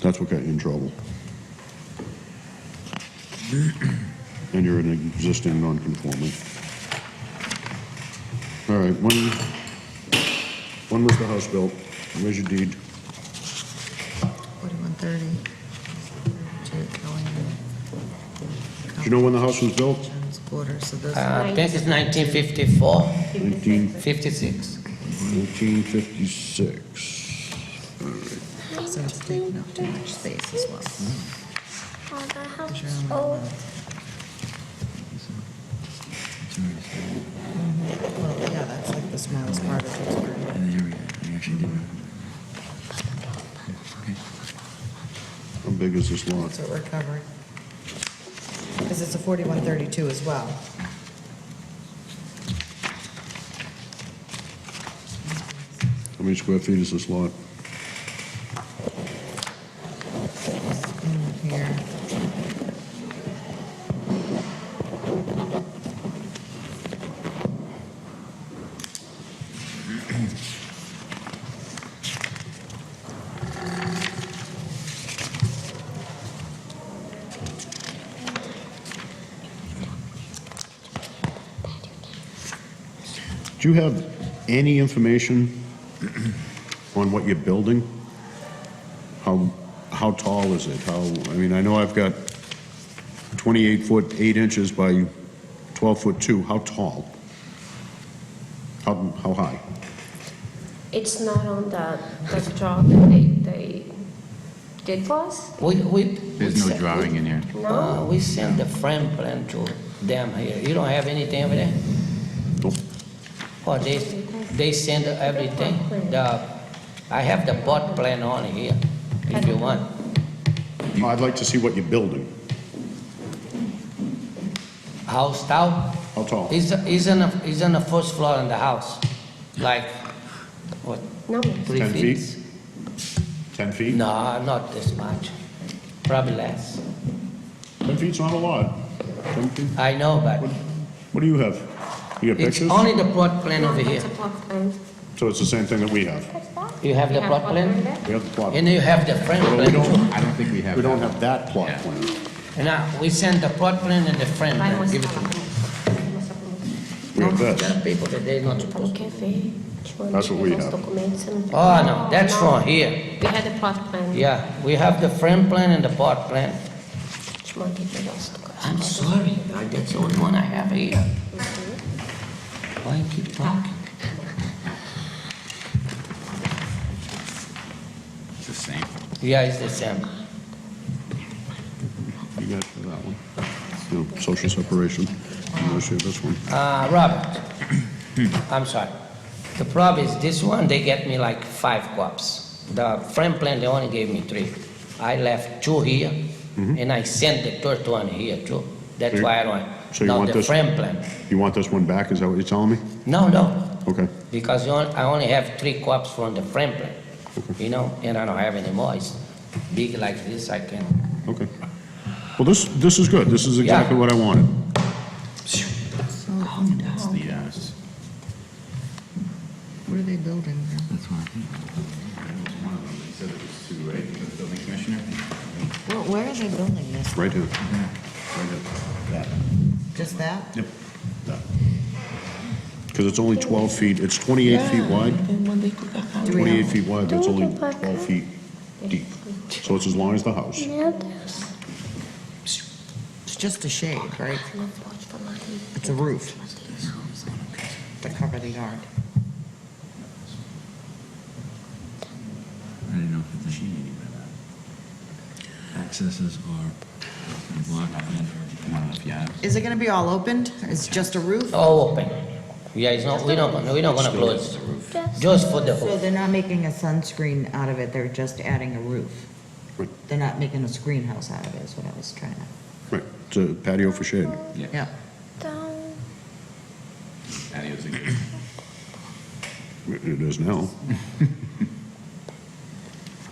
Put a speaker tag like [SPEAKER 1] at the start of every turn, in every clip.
[SPEAKER 1] That's what got you in trouble. And you're an existing non-conforming. All right, one, one was the house built, where's your deed?
[SPEAKER 2] 4130. Jake
[SPEAKER 1] Do you know Ah. when the house was built?
[SPEAKER 2] Jones Quarter, so those,
[SPEAKER 3] Uh, This is 1954,
[SPEAKER 1] 19-
[SPEAKER 3] 56.
[SPEAKER 1] 1956.
[SPEAKER 2] so it's taking up too much space as well.
[SPEAKER 4] Oh, that house
[SPEAKER 2] Sure.
[SPEAKER 4] is old.
[SPEAKER 2] Well, yeah, that's like the smallest part of Pittsburgh.
[SPEAKER 5] And there we go. We actually did. Okay.
[SPEAKER 1] How big is this lot?
[SPEAKER 2] That's what we're covering. Because it's a 4132 as well.
[SPEAKER 1] How many square feet is this lot?
[SPEAKER 2] Mm, Here,
[SPEAKER 1] Do you have any information on what you're building? How, how tall is it? How, I mean, I know I've got 28 foot 8 inches by 12 foot 2. How tall? How, how high?
[SPEAKER 4] It's not on the, the draw that they, they did for us?
[SPEAKER 3] We, we.
[SPEAKER 5] There's no drawing in here.
[SPEAKER 3] No, we send the frame plan to them here. You don't have anything over there?
[SPEAKER 1] Nope.
[SPEAKER 3] Or they, they send everything? The, I have the plot plan on here, if you want.
[SPEAKER 1] I'd like to see what you're building.
[SPEAKER 3] House towel?
[SPEAKER 1] How tall?
[SPEAKER 3] Is, is on the, is on the first floor in the house, like, what,
[SPEAKER 4] No.
[SPEAKER 3] three
[SPEAKER 1] 10
[SPEAKER 3] feet?
[SPEAKER 1] feet? 10 feet?
[SPEAKER 3] No, not this much, probably less.
[SPEAKER 1] 10 feet's not a lot. 10 feet?
[SPEAKER 3] I know, but
[SPEAKER 1] What do you have? You got
[SPEAKER 3] it's
[SPEAKER 1] pictures?
[SPEAKER 3] only the plot plan over here.
[SPEAKER 4] It's a block plan.
[SPEAKER 1] So it's the same thing that we have.
[SPEAKER 3] You have the plot plan?
[SPEAKER 4] there?
[SPEAKER 1] We have the plot.
[SPEAKER 3] And you have the frame
[SPEAKER 1] But we
[SPEAKER 3] plan too.
[SPEAKER 1] don't,
[SPEAKER 5] I don't think we have.
[SPEAKER 1] we don't
[SPEAKER 5] that.
[SPEAKER 1] have that plot
[SPEAKER 5] Yeah.
[SPEAKER 1] plan.
[SPEAKER 3] And I, we send the plot plan and the frame
[SPEAKER 4] Vai
[SPEAKER 3] plan, give
[SPEAKER 4] mostrar
[SPEAKER 3] it to
[SPEAKER 4] lá.
[SPEAKER 3] me.
[SPEAKER 1] We have
[SPEAKER 3] No,
[SPEAKER 1] this.
[SPEAKER 3] There are people that they not
[SPEAKER 4] Tá no
[SPEAKER 3] supposed to.
[SPEAKER 4] café.
[SPEAKER 1] That's what we have.
[SPEAKER 3] Oh, no, that's from here.
[SPEAKER 4] We had the plot plan.
[SPEAKER 3] Yeah, we have the frame plan and the plot plan.
[SPEAKER 4] Te mandei pra nós. tu gosta.
[SPEAKER 3] I'm sorry, I- that's the only one I have here. Why keep talking?
[SPEAKER 5] It's the same.
[SPEAKER 3] Yeah, it's the same.
[SPEAKER 1] You got that one. No, social separation. Unless you have this one.
[SPEAKER 3] Uh, Robert, I'm sorry. The problem is this one, they get me like five copies. The frame plan, they only gave me three. I left two here,
[SPEAKER 1] Mm-hmm.
[SPEAKER 3] and I sent the third one here too. That's
[SPEAKER 1] So you-
[SPEAKER 3] why I don't.
[SPEAKER 1] so you
[SPEAKER 3] Now
[SPEAKER 1] want
[SPEAKER 3] the
[SPEAKER 1] this-
[SPEAKER 3] frame plan.
[SPEAKER 1] You want this one back, is that what you're telling me?
[SPEAKER 3] No, no,
[SPEAKER 1] Okay.
[SPEAKER 3] because you on- I only have three copies from the frame plan, you know, and I don't have any more. It's big like this, I can.
[SPEAKER 1] Okay. Well, this, this is good. This is exactly
[SPEAKER 3] Yeah.
[SPEAKER 1] what I wanted.
[SPEAKER 5] That's the, uh, s-
[SPEAKER 2] what are they building there?
[SPEAKER 5] that's one. I think. That was one of them. They said it was two, right? The building commissioner?
[SPEAKER 2] Well, where are they building this?
[SPEAKER 1] Right here.
[SPEAKER 2] Just that?
[SPEAKER 1] Yep. Because it's only 12 feet, it's 28 feet wide,
[SPEAKER 2] Do we
[SPEAKER 1] 28
[SPEAKER 2] know?
[SPEAKER 1] feet wide, but it's
[SPEAKER 4] Don't
[SPEAKER 1] only
[SPEAKER 4] go back
[SPEAKER 1] 12
[SPEAKER 4] up.
[SPEAKER 1] feet deep. So it's as long as the house.
[SPEAKER 4] Meu Deus.
[SPEAKER 2] It's just a shade, right? It's a roof to cover the yard.
[SPEAKER 5] I didn't know if it's. She needed that. Accesses are blocked. I don't know if you have.
[SPEAKER 2] Is it gonna be all opened? It's just a roof?
[SPEAKER 3] All open. Yeah, it's not, we're not, gonna- we're not gonna close. Just for the
[SPEAKER 2] So
[SPEAKER 3] roof.
[SPEAKER 2] they're not making a sunscreen out of it, they're just adding a roof?
[SPEAKER 1] Right.
[SPEAKER 2] They're not making a screen house out of it, is what I was trying to,
[SPEAKER 1] Right, it's a patio for shade.
[SPEAKER 2] yeah.
[SPEAKER 4] Então,
[SPEAKER 5] Patios again.
[SPEAKER 1] It is now.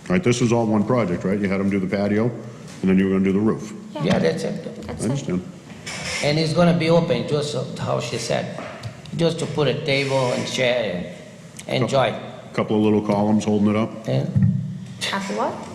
[SPEAKER 1] All right, this is all one project, right? You had them do the patio, and then you were gonna do the roof.
[SPEAKER 3] Yeah, that's it.
[SPEAKER 1] I
[SPEAKER 4] that's it.
[SPEAKER 1] understand.
[SPEAKER 3] And it's gonna be open, just how she said, just to put a table and chair and enjoy.
[SPEAKER 1] Couple of little columns holding it up.
[SPEAKER 3] And
[SPEAKER 4] After what?